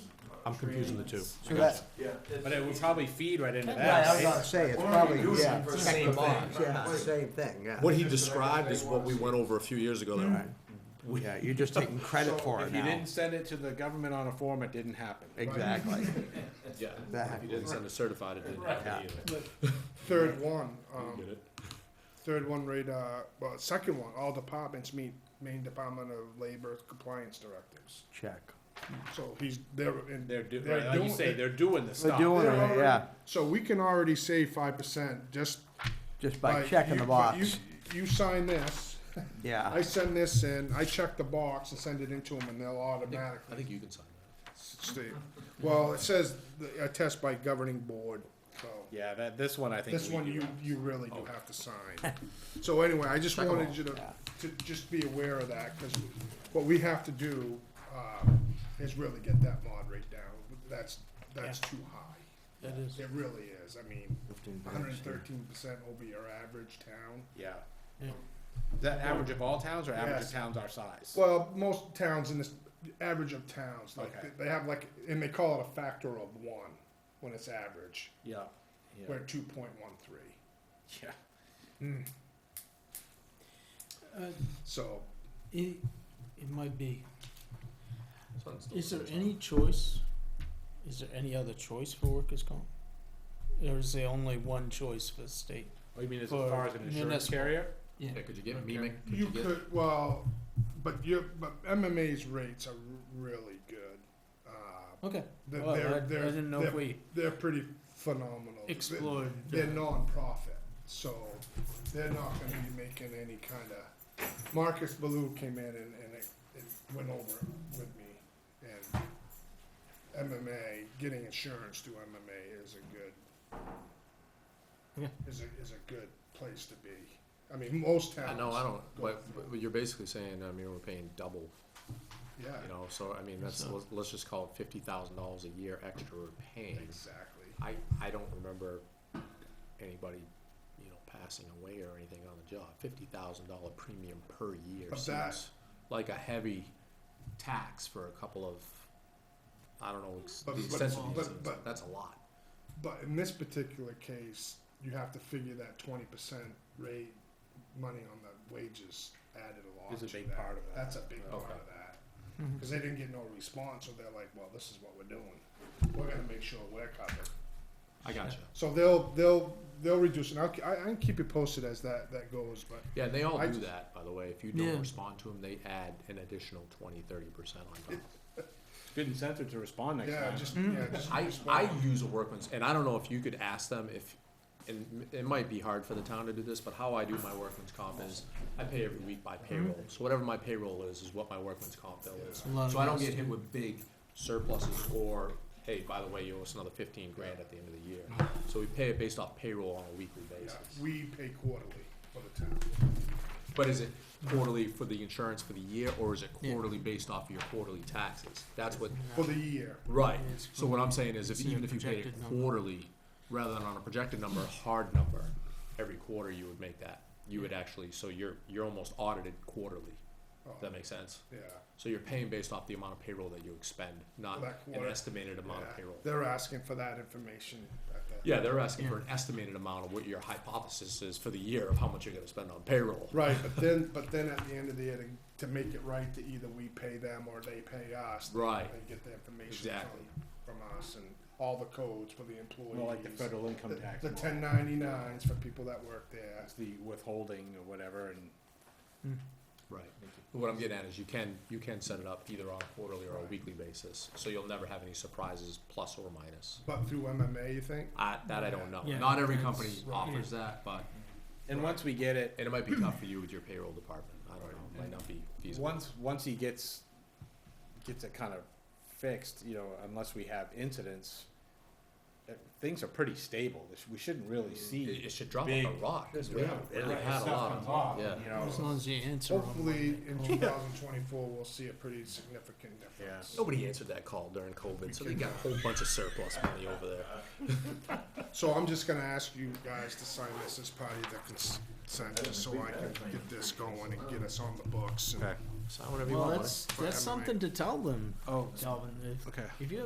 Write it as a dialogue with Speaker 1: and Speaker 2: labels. Speaker 1: I'm confusing the two.
Speaker 2: So that,
Speaker 3: Yeah.
Speaker 1: But it would probably feed right into
Speaker 2: right, I was
Speaker 1: that.
Speaker 2: gonna
Speaker 1: right?
Speaker 2: say, it's
Speaker 3: Why don't we
Speaker 2: probably,
Speaker 3: do
Speaker 2: yeah,
Speaker 3: some for
Speaker 2: it's
Speaker 3: same
Speaker 2: the
Speaker 3: thing?
Speaker 2: box, yeah, it's the same thing, yeah.
Speaker 1: What he Mm-hmm. described is what we went over a few years ago. that we-
Speaker 4: Yeah, you're just taking credit for it
Speaker 1: If you
Speaker 4: now.
Speaker 1: didn't send it to the government on a form, it didn't happen.
Speaker 4: Exactly.
Speaker 1: Yeah. If you
Speaker 4: Exactly.
Speaker 1: didn't send it certified, it didn't happen either.
Speaker 5: Third one,
Speaker 1: You
Speaker 5: um,
Speaker 1: get it?
Speaker 5: third one right, uh, well, second one, all departments meet main Department of Labor compliance directives.
Speaker 4: Check.
Speaker 5: So he's, they're, and
Speaker 1: They're
Speaker 5: they're
Speaker 1: do, like you
Speaker 5: doing-
Speaker 1: say, they're doing the
Speaker 4: They're
Speaker 1: stuff.
Speaker 4: doing it,
Speaker 5: already-
Speaker 4: yeah,
Speaker 5: So we can already save five percent just
Speaker 4: just
Speaker 5: by.
Speaker 4: by checking
Speaker 5: you-
Speaker 4: the
Speaker 5: by you-
Speaker 4: box, Ah.
Speaker 5: You sign this, I
Speaker 4: yeah.
Speaker 5: send this in, I check the box and send it into them and they'll
Speaker 1: I
Speaker 5: automatically
Speaker 1: think you can sign that.
Speaker 5: state. Well, it says the- a test by governing board, so.
Speaker 1: Yeah, that, this one I think.
Speaker 5: This
Speaker 1: we
Speaker 5: one
Speaker 1: do.
Speaker 5: you, you really do have to sign. So anyway, I just wanted you to, to just be aware of that, cause what we have to do, uh, is really get that mod rate down. That's, that's too high. That is. It really is. I mean, hundred and thirteen percent over your average town.
Speaker 1: Yeah. Is that average of all towns or average of
Speaker 5: Yes.
Speaker 1: towns our size?
Speaker 5: Well, most towns in this, average of towns,
Speaker 1: Okay.
Speaker 5: like, they have like, and they call it a factor of one when it's average.
Speaker 1: Yeah. Yeah.
Speaker 5: We're two point one three.
Speaker 1: Yeah.
Speaker 6: Uh,
Speaker 5: So,
Speaker 6: It, it might be. Is there any choice? Is there any other choice for workers' comp? Or is there only one choice for the state?
Speaker 1: Oh, you mean as
Speaker 6: For
Speaker 1: far as an insurance
Speaker 6: municipal.
Speaker 1: carrier?
Speaker 6: Yeah.
Speaker 7: Yeah, could you get mimic?
Speaker 5: You could, well, but you, but MMA's rates are really good. Uh,
Speaker 6: Okay.
Speaker 5: they're,
Speaker 6: Well, I, I
Speaker 5: they're, they're,
Speaker 6: didn't know if
Speaker 5: they're-
Speaker 6: we
Speaker 5: they're pretty phenomenal. They-
Speaker 6: explored.
Speaker 5: They're
Speaker 6: uh,
Speaker 5: nonprofit, so they're not gonna be making any kinda, Marcus Ballou came in and, and it, it went over it with me. And MMA, getting insurance through MMA is a good,
Speaker 6: Yeah.
Speaker 5: is a, is a good place to be. I mean, most towns.
Speaker 7: No, I don't, but, but you're basically saying, I mean, we're paying double,
Speaker 5: Yeah.
Speaker 7: you know, so, I mean, that's,
Speaker 6: So-
Speaker 7: let's- let's just call it fifty thousand dollars a year extra we're paying.
Speaker 5: Exactly.
Speaker 7: I, I don't remember anybody, you know, passing away or anything on the job. Fifty thousand dollar premium per year
Speaker 5: But that-
Speaker 7: seems like a heavy tax for a couple of, I don't know, ex-
Speaker 5: But-
Speaker 7: the
Speaker 5: but-
Speaker 7: extent of
Speaker 5: but-
Speaker 7: these things.
Speaker 5: but-
Speaker 7: That's a lot.
Speaker 5: But in this particular case, you have to figure that twenty percent rate money on the wages added along.
Speaker 1: Is a
Speaker 5: to
Speaker 1: big
Speaker 5: that.
Speaker 1: part of that.
Speaker 5: That's a big part
Speaker 7: Okay.
Speaker 5: of that. Because they didn't get no response, so they're like, well, this is what we're doing. We're gonna make sure we're covered.
Speaker 7: I gotcha.
Speaker 5: So they'll, they'll, they'll reduce, and I'll, I, I can keep you posted as that, that goes, but
Speaker 7: Yeah, and they all
Speaker 5: I
Speaker 7: do
Speaker 5: just-
Speaker 7: that, by the way. If you don't
Speaker 6: Yeah.
Speaker 7: respond to them, they add an additional 20, 30% on top.
Speaker 1: Good incentive to respond next
Speaker 5: yeah,
Speaker 1: time.
Speaker 5: just, yeah, just.
Speaker 7: I, I
Speaker 5: respond.
Speaker 7: use a workman's, and I don't know if you could ask them if, and m- it might be hard for the town to do this, but how I do my workman's comp is I pay every week
Speaker 6: Mm-hmm.
Speaker 7: by payroll. So whatever my payroll is, is what my workman's comp bill is.
Speaker 6: a lot of
Speaker 7: So I don't
Speaker 6: those
Speaker 7: get hit
Speaker 6: do.
Speaker 7: with big surpluses or, hey, by the way, you owe us another fifteen grand at the end of the year. So we pay it based off payroll on a weekly
Speaker 5: Yeah,
Speaker 7: basis.
Speaker 5: We pay quarterly for the town.
Speaker 7: But is it quarterly for the insurance for the year, or is it
Speaker 6: Yeah.
Speaker 7: quarterly based off your quarterly taxes? That's what
Speaker 5: For the year,
Speaker 7: Right,
Speaker 6: It's
Speaker 7: so what I'm saying is if,
Speaker 6: it's a
Speaker 7: even if you paid it
Speaker 6: projected number.
Speaker 7: quarterly, rather than on a projected number, a hard number, every quarter you would make that. You would actually, so you're, you're almost audited quarterly,
Speaker 5: Oh.
Speaker 7: Does that make sense?
Speaker 5: yeah.
Speaker 7: So you're paying based off the amount of payroll that you expend, not
Speaker 5: That
Speaker 7: an
Speaker 5: quarter.
Speaker 7: estimated amount
Speaker 5: yeah.
Speaker 7: of payroll.
Speaker 5: They're asking for that information at the.
Speaker 7: Yeah, they're asking for an estimated amount of what your hypothesis is for the year of how much you're gonna spend on payroll.
Speaker 5: Right, but then, but then at the end of the year, to, to make it right, to either we pay them or they pay us.
Speaker 7: Right.
Speaker 5: And get the information
Speaker 7: Exactly.
Speaker 5: from, from us and all the codes for the employees.
Speaker 1: More like the federal income
Speaker 5: The-
Speaker 1: tax.
Speaker 5: The
Speaker 1: law.
Speaker 5: ten ninety-nines for people that work there.
Speaker 1: That's the withholding or whatever and.
Speaker 7: Right. What I'm getting at is you can, you can set it up either on a quarterly or a
Speaker 5: Right.
Speaker 7: weekly basis, so you'll never have any surprises, plus or minus.
Speaker 5: But through MMA, you think?
Speaker 7: I, that I don't know.
Speaker 6: Yeah,
Speaker 7: Not every
Speaker 6: that's-
Speaker 7: company offers that, but
Speaker 1: And once we get it,
Speaker 7: and it might be tough for you with your payroll department. I don't know. It might not be feasible.
Speaker 1: once, once he gets, gets it kind of fixed, you know, unless we have incidents, uh, things are pretty stable. This- We shouldn't really
Speaker 7: it,
Speaker 1: see.
Speaker 7: it should drop like a
Speaker 1: big-
Speaker 7: rock.
Speaker 1: this
Speaker 7: We
Speaker 1: big-
Speaker 7: haven't really
Speaker 1: like,
Speaker 7: had a
Speaker 1: stuff
Speaker 7: lot
Speaker 1: comes
Speaker 7: of
Speaker 1: off,
Speaker 7: yeah.
Speaker 1: You know,
Speaker 6: As long as you answer 'em.
Speaker 5: Hopefully, in
Speaker 1: Oh.
Speaker 5: two thousand twenty-four, we'll see a pretty significant difference.
Speaker 7: Nobody answered that call during COVID, so they got a whole bunch of surplus money over there.
Speaker 5: So I'm just gonna ask you guys to sign this as part of the consent, just so I can get this going and get us on the books and.
Speaker 7: Sign whatever you
Speaker 6: Well,
Speaker 7: want. buddy.
Speaker 6: that's, that's
Speaker 5: Whatever,
Speaker 6: something to tell them, Calvin. If,
Speaker 1: Okay.
Speaker 6: if you